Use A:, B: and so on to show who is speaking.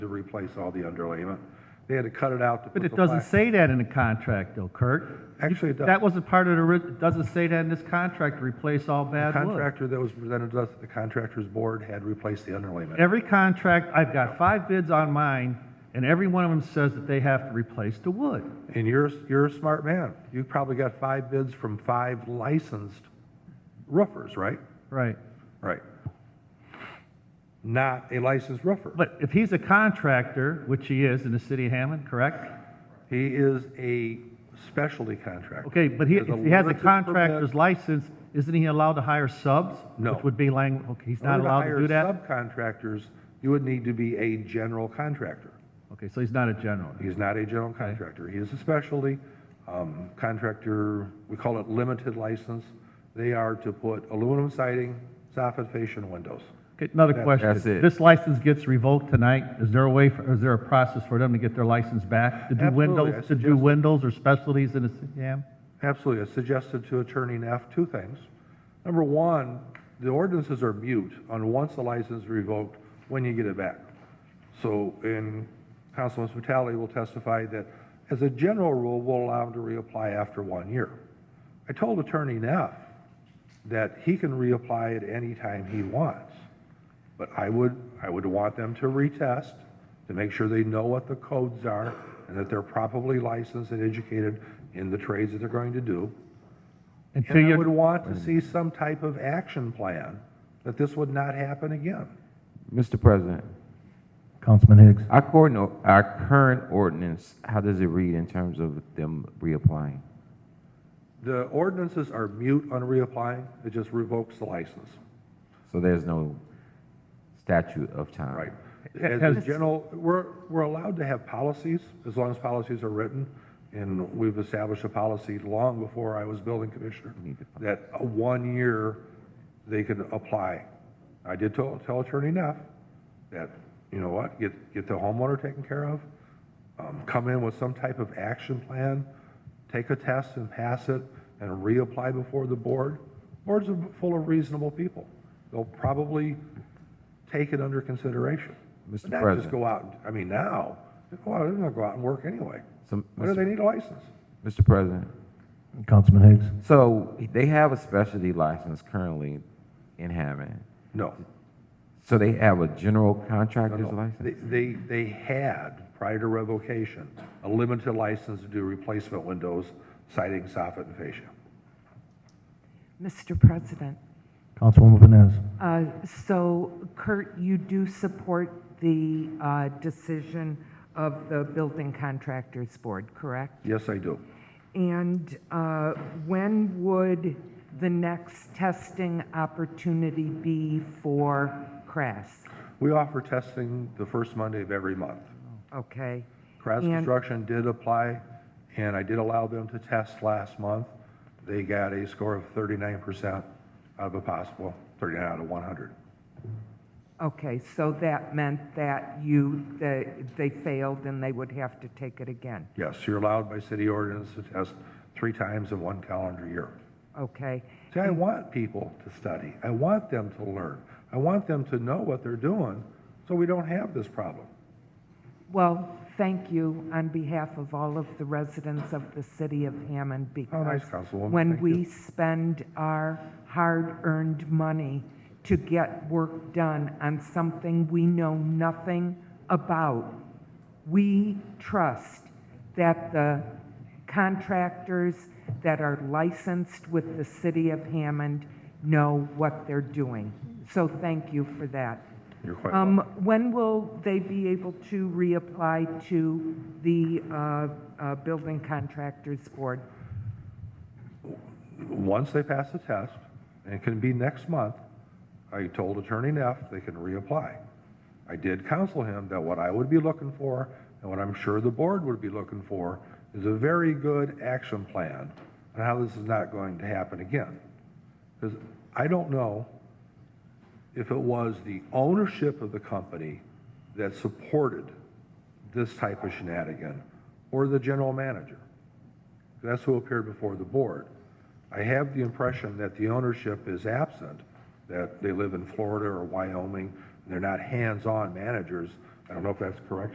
A: to replace all the underlayment. They had to cut it out to put
B: But
A: the
B: it doesn't
A: plastic.
B: say that in the contract though, Kurt.
A: Actually, it does.
B: That wasn't part of the, ri- it doesn't say that in this contract, to replace all
A: The
B: bad wood.
A: contractor that was presented to us, the contractor's board had replaced the underlayment.
B: Every contract, I've got five bids on mine, and every one of them says that they have to replace the wood.
A: And you're, you're a smart man. You probably got five bids from five licensed roofers, right?
B: Right.
A: Right. Not a licensed roofer.
B: But if he's a contractor, which he is in the city of Hammond, correct?
A: He is a specialty contractor.
B: Okay, but he,
A: There's
B: if he has a
A: limited
B: contractor's
A: permit-
B: license, isn't he allowed to hire subs?
A: No.
B: Which would be lang, okay, he's
A: In
B: not
A: order
B: allowed to do
A: hire
B: that?
A: Subcontractors, you would need to be a general contractor.
B: Okay, so he's not a general.
A: He's not a general contractor. He is a specialty um, contractor, we call it limited license. They are to put aluminum siding, soffit fascia, and windows.
B: Okay, another question.
C: that's it.
B: This license gets revoked tonight, is there a way, for- is there a process for them to get their license back? To do
A: Absolutely, I
B: windows, to do
A: suggest-
B: windows or specialties in the city of Hammond?
A: Absolutely. I suggested to Attorney Neff two things. Number one, the ordinances are mute on once the license is revoked, when you get it back. So, and Councilman Vitale will testify that as a general rule, we'll allow him to reapply after one year. I told Attorney Neff that he can reapply at any time he wants. But I would, I would want them to retest, to make sure they know what the codes are, and that they're properly licensed and educated in the trades that they're going to do.
B: And to
A: And I would
B: your,
A: want to see some type of action plan, that this would not happen again.
C: Mr. President,
B: Councilman Higgs.
C: our current, or- our current ordinance, how does it read in terms of them reapplying?
A: The ordinances are mute on reapplying, it just revokes the license,
C: So there's no statute of time.
A: right? As a general, we're, we're allowed to have policies, as long as policies are written, and we've established a policy long before I was building commissioner, that a one year, they can apply. I did tell, tell Attorney Neff that, you know what, get, get the homeowner taken care of, um, come in with some type of action plan, take a test and pass it, and reapply before the board. Boards are full of reasonable people. They'll probably take it under consideration.
C: Mr.
A: But Not just
C: President.
A: go out, and- I mean, now, well, they're gonna go out and work anyway.
C: So,
A: What do
C: Mr.
A: they need a license?
C: Mr. President,
B: Councilman Higgs.
C: so they have a specialty license currently in Hammond.
A: No.
C: So they have a general contractor's
A: no. They,
C: license?
A: they they had, prior to revocation, a limited license to do replacement windows, siding, soffit, and fascia.
D: Mr. President,
B: Councilwoman Vines.
D: uh, so Kurt, you do support the uh, decision of the Building Contractors Board, correct?
A: Yes, I do.
D: And uh, when would the next testing opportunity be for Crass?
A: We offer testing the first Monday of every month.
D: Okay?
A: Kraz
D: And-
A: Construction did apply, and I did allow them to test last month. They got a score of 39% out of a possible, 39 out of 100.
D: Okay, so that meant that you, that they failed and they would have to take it again?
A: Yes, you're allowed by city ordinance to test three times in one calendar year.
D: Okay?
A: See, I want people to study. I want them to learn. I want them to know what they're doing, so we don't have this problem.
D: Well, thank you on behalf of all of the residents of the city of Hammond
A: Oh, nice,
D: because
A: Councilwoman.
D: when
A: Thank
D: we
A: you.
D: spend our hard-earned money to get work done on something we know nothing about, we trust that the contractors that are licensed with the city of Hammond know what they're doing. So thank you for that.
A: You're quite
D: Um, When will they be able to reapply to the uh, uh, Building Contractors Board?
A: Once they pass the test, and it can be next month, I told Attorney Neff they can reapply. I did counsel him that what I would be looking for, and what I'm sure the board would be looking for, is a very good action plan on how this is not going to happen again. Because I don't know if it was the ownership of the company that supported this type of shenanigan, or the general manager. That's who appeared before the board. I have the impression that the ownership is absent, that they live in Florida or Wyoming, and they're not hands-on managers. I don't know if that's correct